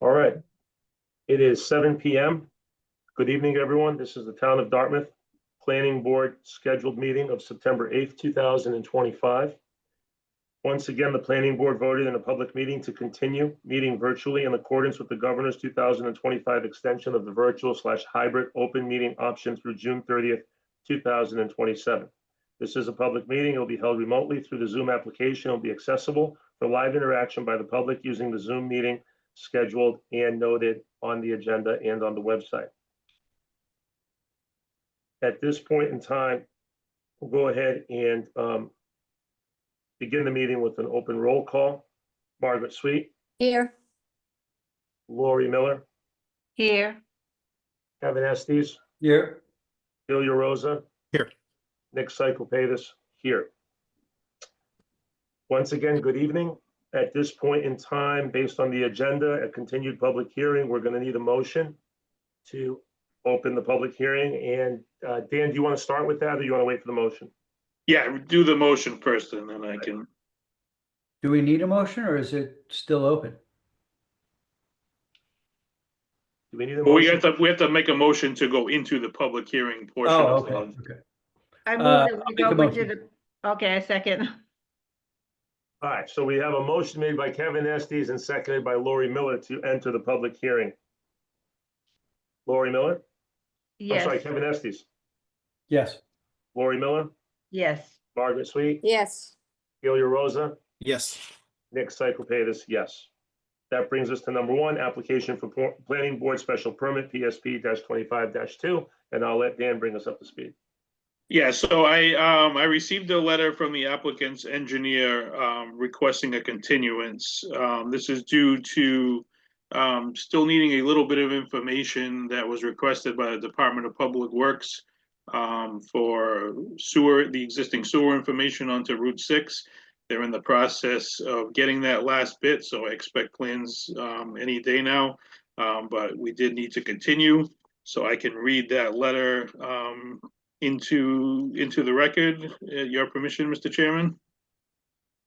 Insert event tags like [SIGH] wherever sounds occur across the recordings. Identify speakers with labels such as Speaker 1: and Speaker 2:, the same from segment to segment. Speaker 1: All right. It is seven PM. Good evening, everyone. This is the Town of Dartmouth Planning Board scheduled meeting of September eighth, two thousand and twenty-five. Once again, the planning board voted in a public meeting to continue meeting virtually in accordance with the governor's two thousand and twenty-five extension of the virtual slash hybrid open meeting option through June thirtieth, two thousand and twenty-seven. This is a public meeting. It will be held remotely through the Zoom application. It will be accessible for live interaction by the public using the Zoom meeting scheduled and noted on the agenda and on the website. At this point in time, we'll go ahead and um, begin the meeting with an open roll call. Margaret Sweet,
Speaker 2: Here.
Speaker 1: Lori Miller,
Speaker 2: Here.
Speaker 1: Kevin Estes,
Speaker 3: Here,
Speaker 1: Ilya Rosa.
Speaker 4: Here.
Speaker 1: Nick Cyclepatis, here. Once again, good evening. At this point in time, based on the agenda, a continued public hearing, we're going to need a motion to open the public hearing. And uh, Dan, do you want to start with that or you want to wait for the motion?
Speaker 5: Yeah, do the motion first and then I can,
Speaker 3: do we need a motion or is it still open?
Speaker 1: Do we need a
Speaker 5: Well, we
Speaker 1: motion?
Speaker 5: have to, we have to make a motion to go into the public hearing portion
Speaker 3: Oh,
Speaker 5: of
Speaker 3: okay,
Speaker 5: the.
Speaker 3: okay.
Speaker 2: I
Speaker 3: Uh,
Speaker 2: move that we
Speaker 3: I'll make
Speaker 2: go
Speaker 3: a
Speaker 2: into the, okay, a second.
Speaker 1: All right, so we have a motion made by Kevin Estes and seconded by Lori Miller to enter the public hearing. Lori Miller? I'm
Speaker 2: Yes,
Speaker 1: sorry, Kevin Estes.
Speaker 3: Yes,
Speaker 1: Lori Miller,
Speaker 2: yes.
Speaker 1: Margaret Sweet,
Speaker 2: Yes.
Speaker 1: Ilya Rosa,
Speaker 4: Yes,
Speaker 1: Nick Cyclepatis, yes. That brings us to number one, application for por- planning board special permit, PSP twenty-five two, and I'll let Dan bring us up to speed.
Speaker 5: Yeah, so I, um, I received a letter from the applicant's engineer, um, requesting a continuance. Um, this is due to, um, still needing a little bit of information that was requested by the Department of Public Works um, for sewer, the existing sewer information onto Route Six. They're in the process of getting that last bit, so I expect plans, um, any day now. Um, but we did need to continue, so I can read that letter, um, into, into the record, uh, your permission, Mr. Chairman?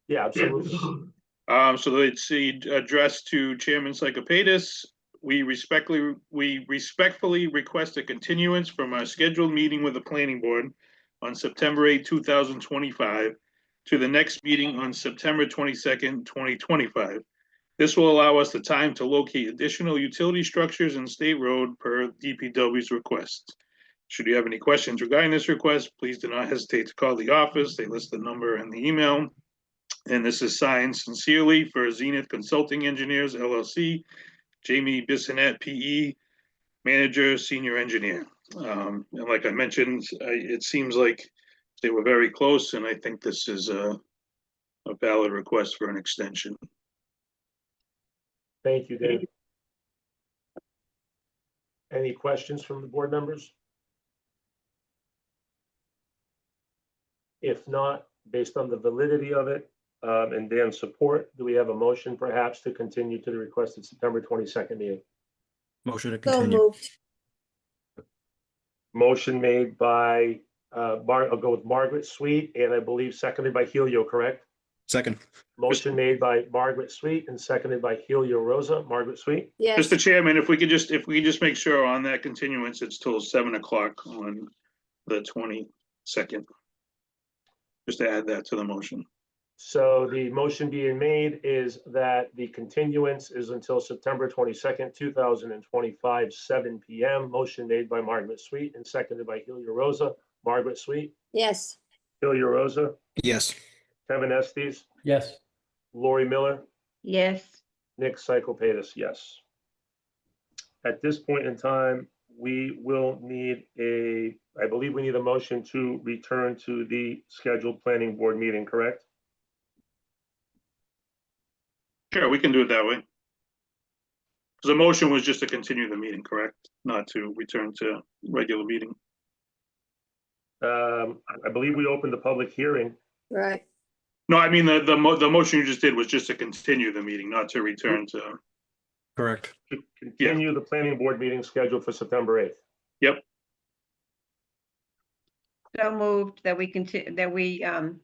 Speaker 1: Yeah, absolutely.
Speaker 5: [LAUGHS] Um, so it's the address to Chairman Psychopatis. We respectfully, we respectfully request a continuance from our scheduled meeting with the planning board on September 8, two thousand twenty-five, to the next meeting on September twenty-second, twenty twenty-five. This will allow us the time to locate additional utility structures in State Road per DPW's request. Should you have any questions regarding this request, please do not hesitate to call the office. They list the number and the email. And this is signed sincerely for Zenith Consulting Engineers LLC, Jamie Bissonette, PE, Manager, Senior Engineer. Um, and like I mentioned, I, it seems like they were very close, and I think this is a a valid request for an extension.
Speaker 1: [LAUGHS] Thank you, Dan. Any questions from the board members? If not, based on the validity of it, um, and Dan's support, do we have a motion perhaps to continue to the requested September twenty-second meeting?
Speaker 4: motion to
Speaker 6: So
Speaker 4: continue.
Speaker 6: moved,
Speaker 1: Motion made by, uh, Mar, I'll go with Margaret Sweet, and I believe seconded by Helio, correct?
Speaker 4: Second,
Speaker 1: Motion made by Margaret Sweet and seconded by Helio Rosa. Margaret Sweet,
Speaker 6: yes,
Speaker 5: Mr. Chairman, if we could just, if we could just make sure on that continuance, it's till seven o'clock on the twenty-second. Just to add that to the motion.
Speaker 1: so the motion being made is that the continuance is until September twenty-second, two thousand and twenty-five, seven PM. Motion made by Margaret Sweet and seconded by Helio Rosa. Margaret Sweet,
Speaker 6: yes,
Speaker 1: Helio Rosa,
Speaker 4: yes,
Speaker 1: Kevin Estes,
Speaker 3: yes,
Speaker 1: Lori Miller,
Speaker 2: Yes,
Speaker 1: Nick Cyclepatis, yes. At this point in time, we will need a, I believe we need a motion to return to the scheduled planning board meeting, correct?
Speaker 5: Sure, we can do it that way. 'Cause The motion was just to continue the meeting, correct? Not to return to regular meeting.
Speaker 1: Um, I believe we opened the public hearing.
Speaker 6: right,
Speaker 5: No, I mean, the, the mo- the motion you just did was just to continue the meeting, not to return to,
Speaker 4: correct.
Speaker 1: to Continue the planning board meeting scheduled for September eighth.
Speaker 2: so moved that we continue, that we um